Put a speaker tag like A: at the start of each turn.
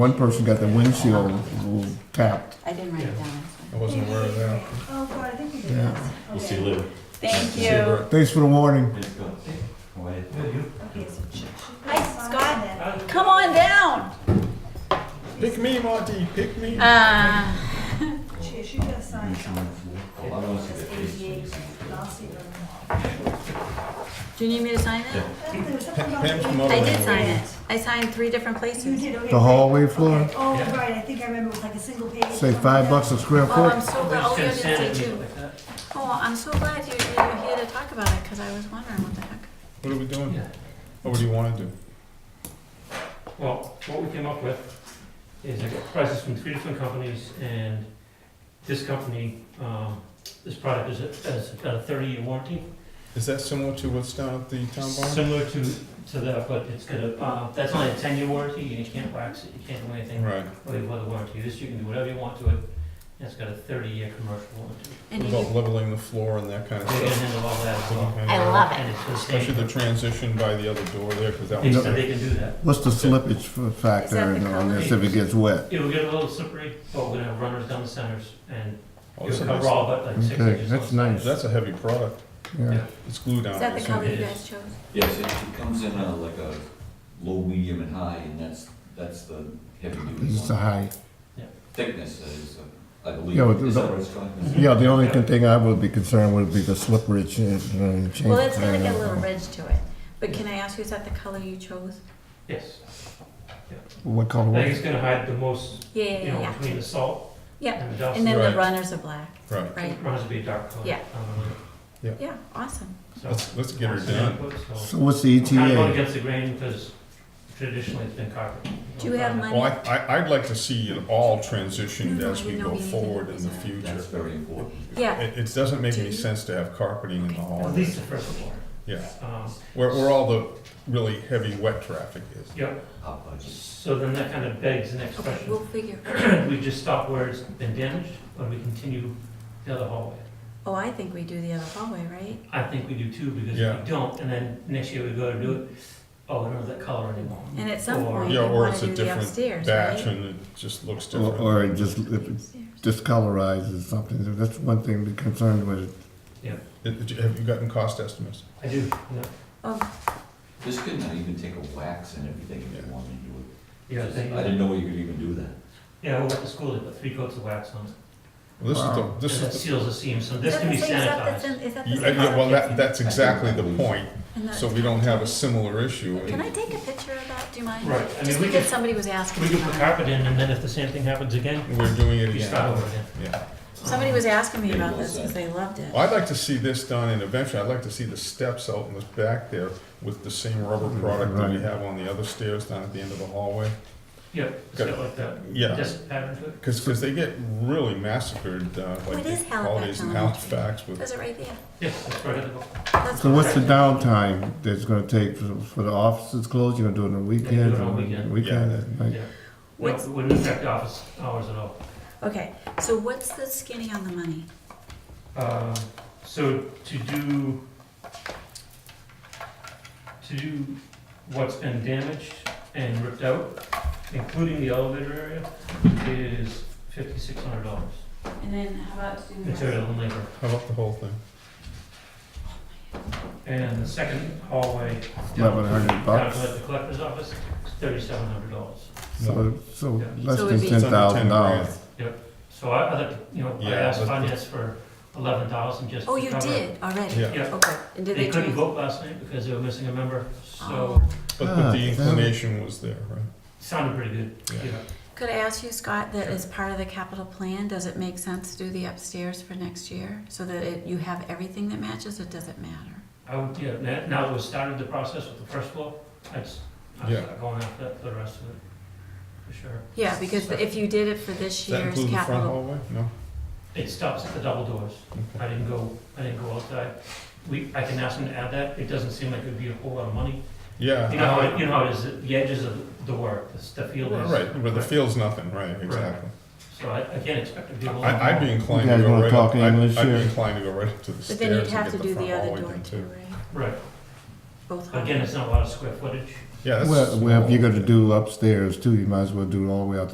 A: One person got the windshield tapped.
B: I didn't write it down.
C: I wasn't aware of that.
D: Oh, God, I think you did
A: Yeah.
D: this.
E: We'll see
D: Okay.
E: you later.
B: Thank
C: See you,
B: you.
C: Brett.
A: Thanks for the warning.
E: It's good. How are you?
D: Okay, so she- she-
B: Hi, Scott.
D: Then.
B: Come on down.
C: Pick me, Monty, pick me.
B: Uh,
D: She, she got signed.
E: A lot of us
D: It's
E: get
D: eighty-eight,
E: paid.
D: and I'll see her.
B: do you need me to sign it?
D: Uh, there was something about
C: Pam's
D: the-
C: mother.
B: I did sign it. I signed three different
D: You
B: places.
D: did, okay.
A: The hallway floor,
D: Okay. Oh, right, I think I remember it was like a single page.
A: say five bucks a square
B: Oh, I'm
A: foot.
B: so glad, oh, you're the too. Oh, I'm so glad you, you were here to talk about it, because I was wondering what the heck.
C: What are we doing?
F: Yeah.
C: What do you wanna do?
F: Well, what we came up with is I got prices from three different companies, and this company, um, this product is, a- has got a thirty-year warranty.
C: Is that similar to what's down at the town barn?
F: Similar to, to that, but it's got a, uh, that's only a ten-year warranty, and you can't wax it, you can't do anything
C: Right.
F: with the warranty. This, you can do whatever you want to it, and it's got a thirty-year commercial warranty.
B: And
C: What
B: you,
C: about leveling the floor and that kind of
F: They can
C: stuff?
F: handle all that as well.
B: I love it.
F: And it's the
C: Especially
F: same,
C: the transition by the other door there, cause that
F: they
C: was.
F: said they can do that.
A: What's the slippage f- factor
B: Is that the
A: on this if it gets wet?
F: It'll get a little slippery, but we're gonna have runners down the centers, and it'll
C: Oh, that's a
F: cover
C: nice-
F: all but like six
A: Okay,
F: inches.
A: that's
F: on the
A: nice.
F: sides.
C: That's a heavy product.
A: Yeah.
C: It's glued down.
B: is that the color you
F: It is.
B: guys chose?
E: Yes, it it comes in a, like a low, medium, and high, and that's, that's the heavy duty
A: It's a
E: one.
A: high.
E: Thickness is, uh, I believe,
A: Yeah, but
E: is
A: the-
E: that what it's called?
A: Yeah, the only con- thing I would be concerned would be the slippery change.
B: Well, it's gonna get a little ridge to it, but can I ask you, is that the color you chose?
F: Yes,
A: What color
F: I
A: was
F: think it's
A: it?
F: gonna hide the most,
B: Yeah,
F: you
B: yeah,
F: know,
B: yeah,
F: between
B: yeah.
F: the salt
B: Yeah,
F: and the dust.
B: and then the
C: Right.
B: runners are black,
C: Right,
B: right?
F: It runs to be a dark color.
B: Yeah.
F: um,
B: Yeah, awesome.
F: so-
C: let's, let's get her
F: Lots of
C: done.
F: input, So
A: So what's the E
F: I'm kind of going
A: ETA?
F: against the grain because traditionally it's been carpet.
B: Do you have
F: carpet.
B: money?
C: Well, I, I, I'd like to see it all transitioned
B: No, no,
C: as
B: I
C: we
B: know
C: go
B: Mm-hmm. we need to
C: forward in the
B: design.
C: future.
E: That's very important.
B: Yeah,
C: It, it doesn't make any sense to have carpeting in the
F: At
C: hallway.
F: least the first floor.
C: Yeah,
F: Um,
C: where, where all the really heavy wet traffic is.
F: Yeah,
E: How about you?
F: so then that kind of begs the next
B: okay,
F: question.
B: we'll figure.
F: We just stop where it's been damaged, or we continue the other hallway?
B: Oh, I think we do the other hallway, right?
F: I think we do too, because if
C: Yeah.
F: we don't, and then next year we go to do it, oh, we don't have that color anymore.
B: And at some
F: Or-
B: point, you
C: Yeah, or
B: wanna
C: it's a
B: do the
C: different
B: upstairs,
C: batch
B: right?
C: and it just looks
A: Or-
C: different.
A: Or it just if it discolorizes something, that's one thing to be concerned with.
C: It- it- Have you gotten cost estimates?
F: I do, yeah.
B: Oh,
E: This could not even take a wax and everything if you wanted to do it.
F: Yeah,
E: Just- I
F: they,
E: didn't know you could even do that.
F: yeah, we went to school, they put three coats of wax on it.
C: Well, This is the,
A: Wow.
C: this
F: and that
C: is,
F: seals the seam, so
B: is
F: this
B: that
F: can
B: the
F: be
B: same stuff that's
F: sanitized.
B: in, is that
C: the-
B: the same?
C: yeah, yeah, well, that, that's
E: I think
C: exactly the
E: that was-
C: point,
B: And that-
C: so we don't have a similar issue.
B: Can I take a picture of that, do you mind?
F: Right, I
B: Just
F: mean, we
B: because
F: could,
B: somebody was asking
F: we could
B: about
F: put
B: it.
F: carpet in, and then if the same thing happens again,
C: We're doing it
F: we start
C: again.
F: over again.
C: Yeah.
B: Somebody was asking me
E: Maybe
B: about
E: we'll
B: this because they loved it.
C: Well, I'd like to see this done and eventually I'd like to see the steps out in the back there with the same rubber product that we
A: Mm-hmm. Right.
C: have on the other stairs down at the end of the hallway.
F: Yeah, it's
C: Good.
F: got like that,
C: Yeah,
F: just pattern to it.
C: because, they get really massacred, uh, like
B: What is
C: the holidays in
B: Halifax
C: Halifax with,
B: There's it right there.
F: Yes, that's right at the bottom.
B: That's
A: So what's the
B: perfect.
A: downtime that's gonna take for, for the offices closed? You're gonna do it on
F: do it
A: weekends?
F: on
A: or
F: weekend.
A: Weekend, at night?
F: Yeah. No,
B: What's-
F: it Wouldn't affect office hours at all.
B: Okay, so what's the skinny on the money?
F: Um, So to do, to do what's been damaged and ripped out, including the elevator area, is fifty-six hundred dollars,
B: And then how about doing the
F: material and labor.
C: how about the whole thing?
F: And the second hallway. down
A: Eleven
F: to-
A: hundred
F: Down to
A: bucks?
F: like the collector's office, is thirty-seven hundred dollars.
A: So, so
F: Yeah.
A: less
B: So it
A: than
B: would be-
A: ten
C: It's under
A: thousand
C: 10 grand.
A: dollars.
F: So I, I like, to, you know, I
C: Yeah,
F: asked
C: but-
F: finance for eleven thousand just to
B: Oh, you
F: cover-
B: did already?
C: Yeah.
F: Yeah,
B: Okay, and did
F: they
B: they
F: couldn't
B: change?
F: vote last night because they were missing a member, so
B: Oh.
C: But, but
A: Ah,
C: the inclination was there, right?
F: sounded pretty good,
C: Yeah.
F: yeah.
B: Could I ask you, Scott, that as part of the capital plan, does it make sense to do the upstairs for next year? So that it- you have everything that matches, or does it matter?
F: I would, yeah, now, now that we started the process with the first floor, that's, I'm
C: Yeah.
F: going after that for the rest of it, for sure.
B: Yeah, because if you did it for this
C: Does that
B: year's
C: include the front
B: capital.
C: hallway? No?
F: It stops at the double doors. I didn't go, I didn't go outside. We, I can ask them to add that, it doesn't seem like it'd be a whole lot of money. You know, how
C: Yeah.
F: it- you know how it is, the edges of the work, the s- the field is.
C: Right, where the field's nothing, right, exactly.
F: So I, I can't expect it to be a whole lot.
C: I, I'd be
F: more.
C: inclined
A: You
C: to
A: guys
C: go
A: wanna
C: right
A: talk
C: up, I'd,
A: English
C: I'd
A: here?
C: be inclined to go right up to the
B: But then you'd
C: stairs
B: have
C: and
B: to
C: get
B: do
C: the
B: the
C: front
B: other
C: hallway
B: door
C: thing
B: too,
C: too.
B: right?
F: Right,
B: Both
F: again,
B: hallways.
F: it's not a lot of square footage,
C: Yeah, that's.
A: Well, well, if you're
C: small.
A: gonna do upstairs too, you might as well do it all the way out the